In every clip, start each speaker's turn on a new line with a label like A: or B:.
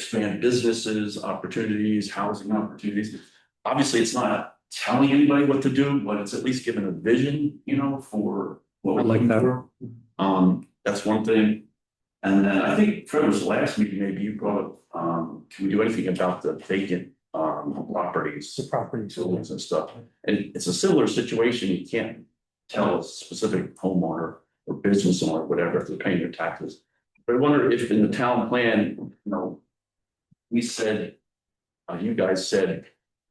A: expand businesses, opportunities, housing opportunities. Obviously, it's not telling anybody what to do, but it's at least giving a vision, you know, for what we're
B: I like
A: looking
B: that.
A: for. Um, that's one thing. And then I think Trevor's last meeting, maybe you brought up, um, can we do anything about the vacant, um, properties?
B: the property.
A: buildings and stuff. And it's a similar situation, you can't tell a specific homeowner or business owner, whatever, if they're paying their taxes. But I wonder if in the town plan, you know, we said, uh, you guys said,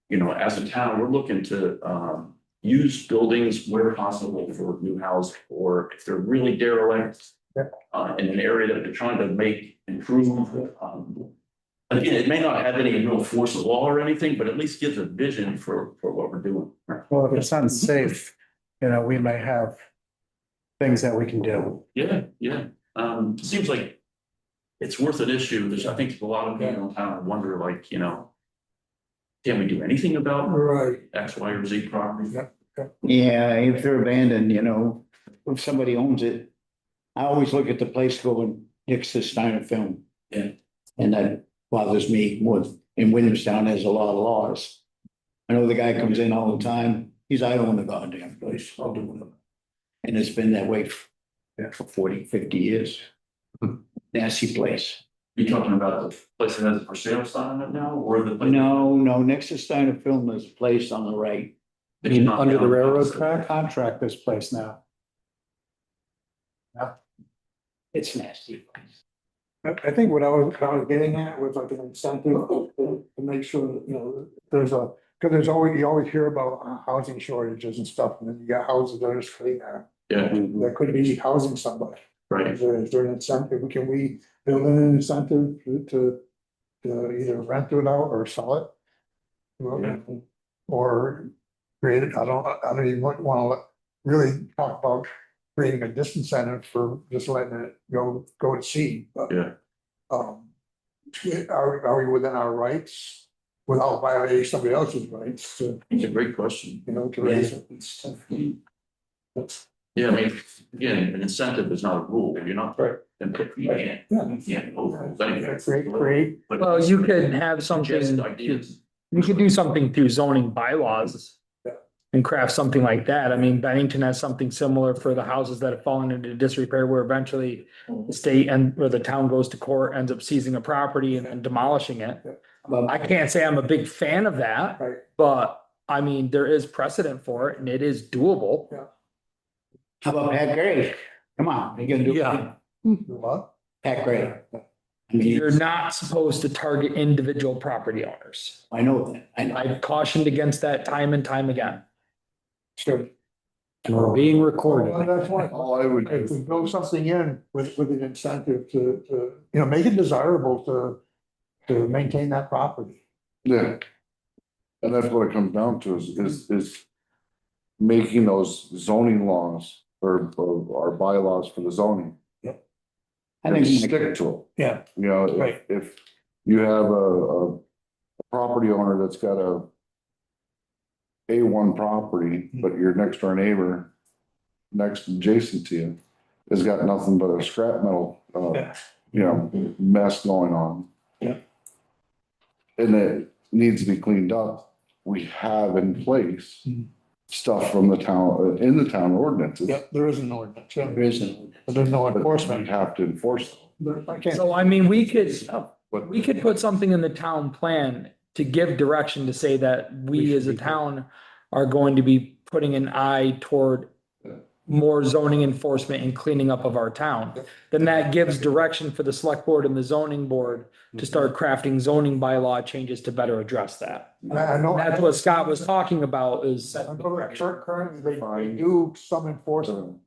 A: you know, as a town, we're looking to, um, use buildings where possible for new housing, or if they're really derelict
B: Yep.
A: uh, in an area that they're trying to make improvement, um, Again, it may not have any real force of law or anything, but at least gives a vision for, for what we're doing.
B: Well, if it's unsafe, you know, we may have things that we can do.
A: Yeah, yeah, um, seems like it's worth an issue, there's, I think, a lot of people in town that wonder like, you know. Can we do anything about
B: Right.
A: X, Y, or Z property?
B: Yeah.
C: Yeah, if they're abandoned, you know, if somebody owns it, I always look at the place going next to Steiner Film.
A: Yeah.
C: And that bothers me more, in Williamstown, there's a lot of laws. I know the guy comes in all the time, he's, I own the goddamn place, I'll do it. And it's been that way for yeah, Hmm. for 40, 50 years. Nasty place.
A: You talking about the place that has a for sale sign on it now, or the? place-
C: No, no, next to Steiner Film, there's a place on the right.
B: I mean, under the
A: Not-
B: railroad track, contract this place now.
C: It's nasty.
D: I, I think what I was, what I was getting at was like an incentive to to make sure that, you know, there's a, because there's always, you always hear about uh, housing shortages and stuff, and then you got houses that are just sitting there.
A: Yeah,
B: Mm-hmm.
D: That could be housing somebody.
A: right,
D: Is there, is there an incentive? Can we build in an incentive to, to, to either rent it out or sell it?
A: Yeah.
D: Or create it, I don't, I don't even want, wanna really talk about creating a disincentive for just letting it go, go to seed, but.
A: Yeah.
D: Um, are, are we within our rights without violating somebody else's rights to,
A: it's a great question.
D: you know, to raise it?
A: Yeah, I mean, again, an incentive is not a rule, you're not.
D: Right.
A: And you can't,
D: Yeah.
A: you can't overrule anything.
D: Create, create,
A: But-
E: Well, you could have
A: Just
E: something,
A: ideas.
E: you could do something through zoning bylaws.
D: Yeah.
E: And craft something like that. I mean, Bennington has something similar for the houses that have fallen into disrepair where eventually the state and or the town goes to court, ends up seizing a property and then demolishing it.
C: But
E: I can't say I'm a big fan of that.
D: Right.
E: But I mean, there is precedent for it and it is doable.
C: how about Pat Gray? Come on, you gonna do?
E: Yeah.
D: what?
C: Pat Gray. I mean,
E: You're not supposed to target individual property owners.
C: I know that, I know.
E: I've cautioned against that time and time again.
D: Sure.
E: And we're being recorded.
D: Well, that's one.
C: I would.
D: If we build something in with, with an incentive to, to, you know, make it desirable to, to maintain that property.
F: Yeah. And that's what it comes down to is, is, is making those zoning laws or, or our bylaws for the zoning.
C: I think,
F: and Stick to it.
D: Yeah.
F: You know, if,
D: Right.
F: if you have a, a property owner that's got a A one property,
D: Hmm.
F: but your next door neighbor, next adjacent to you, has got nothing but a scrap metal, uh,
D: Yeah.
F: you know, mess going on.
D: Yeah.
F: And it needs to be cleaned up. We have in place
D: Mhm.
F: stuff from the town, uh, in the town ordinances.
D: Yep, there is an ordinance, yeah.
C: there is an-
D: but there's no
F: but
D: enforcement.
F: We have to enforce them.
D: But I can't,
E: So I mean, we could,
F: But-
E: we could put something in the town plan to give direction to say that we as a town are going to be putting an eye toward more zoning enforcement and cleaning up of our town. Then that gives direction for the select board and the zoning board to start crafting zoning bylaw changes to better address that.
D: I I know.
E: That's what Scott was talking about is,
D: I know that cur- Currently, they- they
F: Fine.
D: do some enforcement.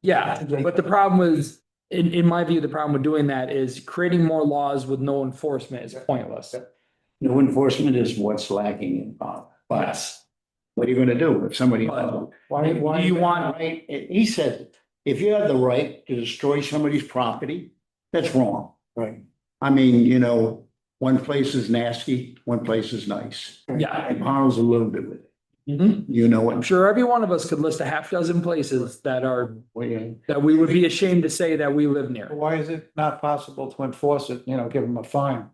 E: yeah, but the problem was, in, in my view, the problem with doing that is creating more laws with no enforcement is pointless.
C: no enforcement is what's lacking in Bob. But
E: Yes.
C: what are you gonna do if somebody?
E: But-
C: Why,
E: why- Do you want-
C: Right, and he said, if you have the right to destroy somebody's property, that's wrong.
D: Right.
C: I mean, you know, one place is nasty, one place is nice.
E: Yeah,
C: And Harlow's alluded to it.
E: Mhm.
C: You know
E: I'm
C: what?
E: sure every one of us could list a half dozen places that are,
C: I'm-
E: that we would be ashamed to say that we live near.
B: Why is it not possible to enforce it, you know, give them a fine?